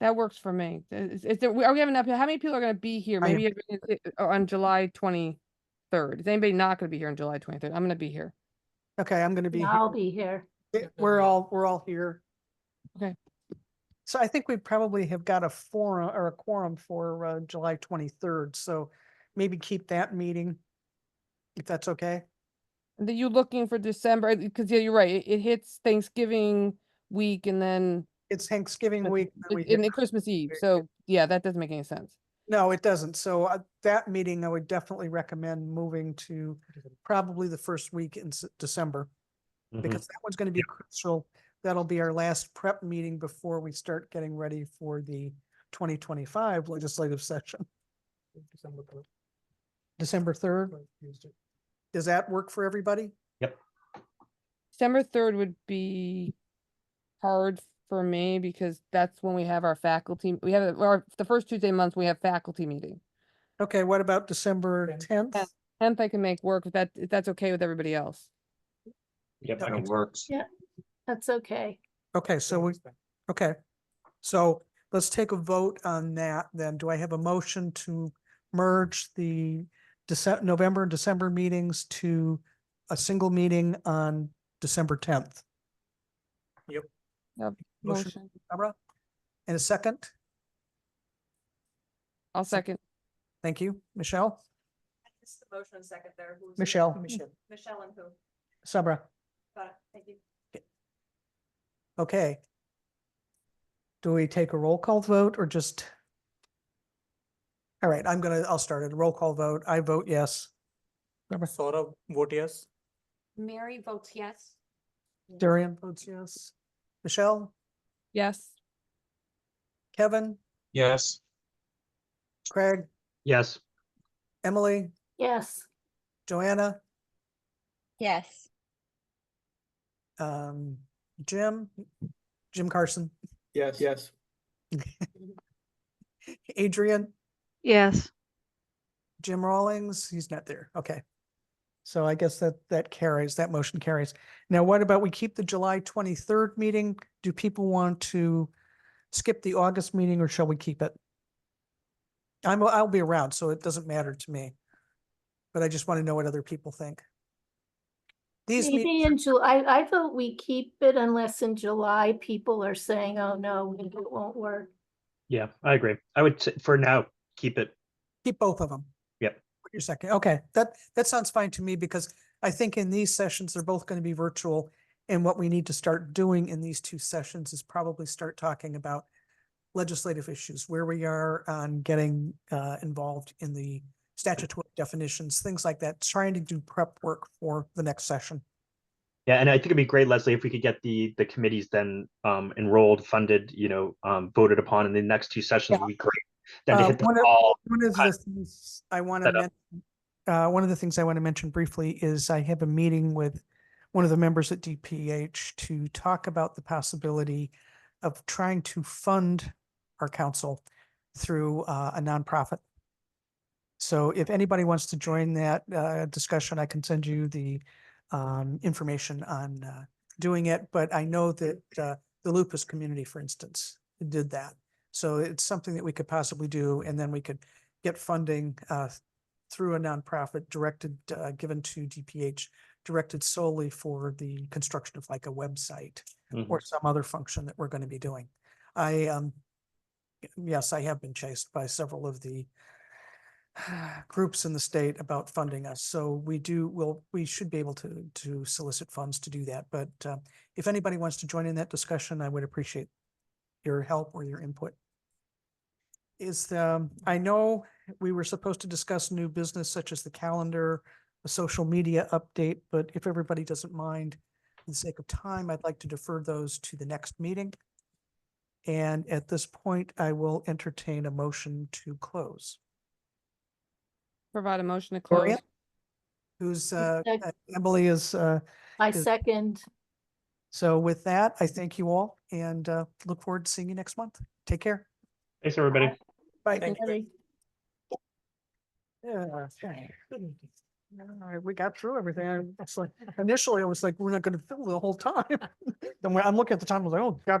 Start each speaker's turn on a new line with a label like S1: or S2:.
S1: That works for me. Is, is there, are we having, enough- how many people are gonna be here?
S2: I am.
S1: Maybe everyone is- uh, on July twenty-third. Is anybody not gonna be here on July twenty-third? I'm gonna be here.
S2: Okay, I'm gonna be,
S3: Yeah,
S2: here.
S3: I'll be here.
S2: Yeah, we're all, we're all here.
S1: Okay.
S2: So I think we probably have got a forum or a quorum for uh, July twenty-third, so maybe keep that meeting. If that's okay.
S1: That you looking for December, because yeah, you're right, it- it hits Thanksgiving week and then,
S2: It's Thanksgiving
S1: But
S2: week. and we
S1: and
S2: hit-
S1: then Christmas Eve,
S2: Very
S1: so yeah, that doesn't make any sense.
S2: No, it doesn't. So uh, that meeting, I would definitely recommend moving to probably the first week in S- December.
S4: Mm-hmm.
S2: Because that one's gonna be crucial. That'll be our last prep meeting before we start getting ready for the twenty twenty-five legislative session. December third. Does that work for everybody?
S1: December third would be hard for me because that's when we have our faculty, we have our, the first Tuesday of month, we have faculty meeting.
S2: Okay, what about December tenth?
S1: Yeah. Tenth I can make work if that, if that's okay with everybody else.
S5: Yep,
S2: Okay.
S5: that works.
S3: That's okay.
S2: Okay, so we, okay. So let's take a vote on that then. Do I have a motion to merge the December, November and December meetings to a single meeting on December tenth?
S1: Yep,
S2: Motion.
S1: Motion,
S2: Barbara? And a second?
S1: I'll
S2: Sec-
S1: second.
S2: Thank you. Michelle?
S6: I missed the motion and second there. Who was it?
S2: Michelle.
S6: Michelle and who?
S2: Sabra?
S6: Got it. Thank you.
S2: Okay. Do we take a roll call vote or just? All right, I'm gonna, I'll start it. Roll call vote. I vote yes.
S7: Saurabh, vote yes.
S6: Mary votes yes.
S2: Darian votes yes. Michelle?
S1: Yes,
S2: Kevin?
S5: Yes.
S2: Craig?
S5: Yes.
S2: Emily?
S3: Yes,
S2: Joanna?
S8: Yes,
S2: Um, Jim? Jim Carson?
S7: Yes. Yes.
S2: Adrian?
S9: Yes,
S2: Jim Rawlings, he's not there. Okay. So I guess that, that carries, that motion carries. Now, what about we keep the July twenty-third meeting? Do people want to skip the August meeting or shall we keep it? I'm, I'll be around, so it doesn't matter to me. But I just want to know what other people think. These
S3: maybe
S2: meetings,
S3: in July, I I vote we keep it unless in July people are saying, oh, no, it won't work.
S4: Yeah, I agree. I would, t- for now, keep it.
S2: keep both of them.
S4: Yep.
S2: Your second, okay, that, that sounds fine to me because I think in these sessions, they're both going to be virtual. And what we need to start doing in these two sessions is probably start talking about legislative issues, where we are on getting uh, involved in the statutory definitions, things like that, trying to do prep work for the next session.
S4: Yeah, and I think it'd be great, Leslie, if we could get the, the committees then um enrolled, funded, you know, um voted upon in the next two sessions would be great. Then to
S2: Uh,
S4: hit them
S2: one of-
S4: all,
S2: One of
S4: Cut.
S2: the things I want to
S4: Set up.
S2: mention, uh, one of the things I want to mention briefly is I have a meeting with one of the members at DPH to talk about the possibility of trying to fund our council through uh, a nonprofit. So if anybody wants to join that uh, discussion, I can send you the um, information on uh, doing it. But I know that uh, the lupus community, for instance, did that. So it's something that we could possibly do, and then we could get funding uh, through a nonprofit directed, uh, given to DPH, directed solely for the construction of like a website
S4: Mhm.
S2: or some other function that we're going to be doing. I, um, y- yes, I have been chased by several of the groups in the state about funding us. So we do, well, we should be able to, to solicit funds to do that. But uh, if anybody wants to join in that discussion, I would appreciate your help or your input. Is, um, I know we were supposed to discuss new business such as the calendar, a social media update, but if everybody doesn't mind, for the sake of time, I'd like to defer those to the next meeting. And at this point, I will entertain a motion to close.
S1: provide a motion to
S2: Gloria?
S1: close.
S2: Who's, uh,
S3: sec-
S2: uh, Emily is, uh,
S3: I
S2: Is-
S3: second.
S2: so with that, I thank you all and, uh, look forward to seeing you next month. Take care.
S4: thanks, everybody.
S2: Bye.
S7: Thank you.
S2: Yeah, okay. All right, we got through everything. I- It's like, initially I was like, we're not gonna fill the whole time. Then when I'm looking at the time, I was like, oh, God, we're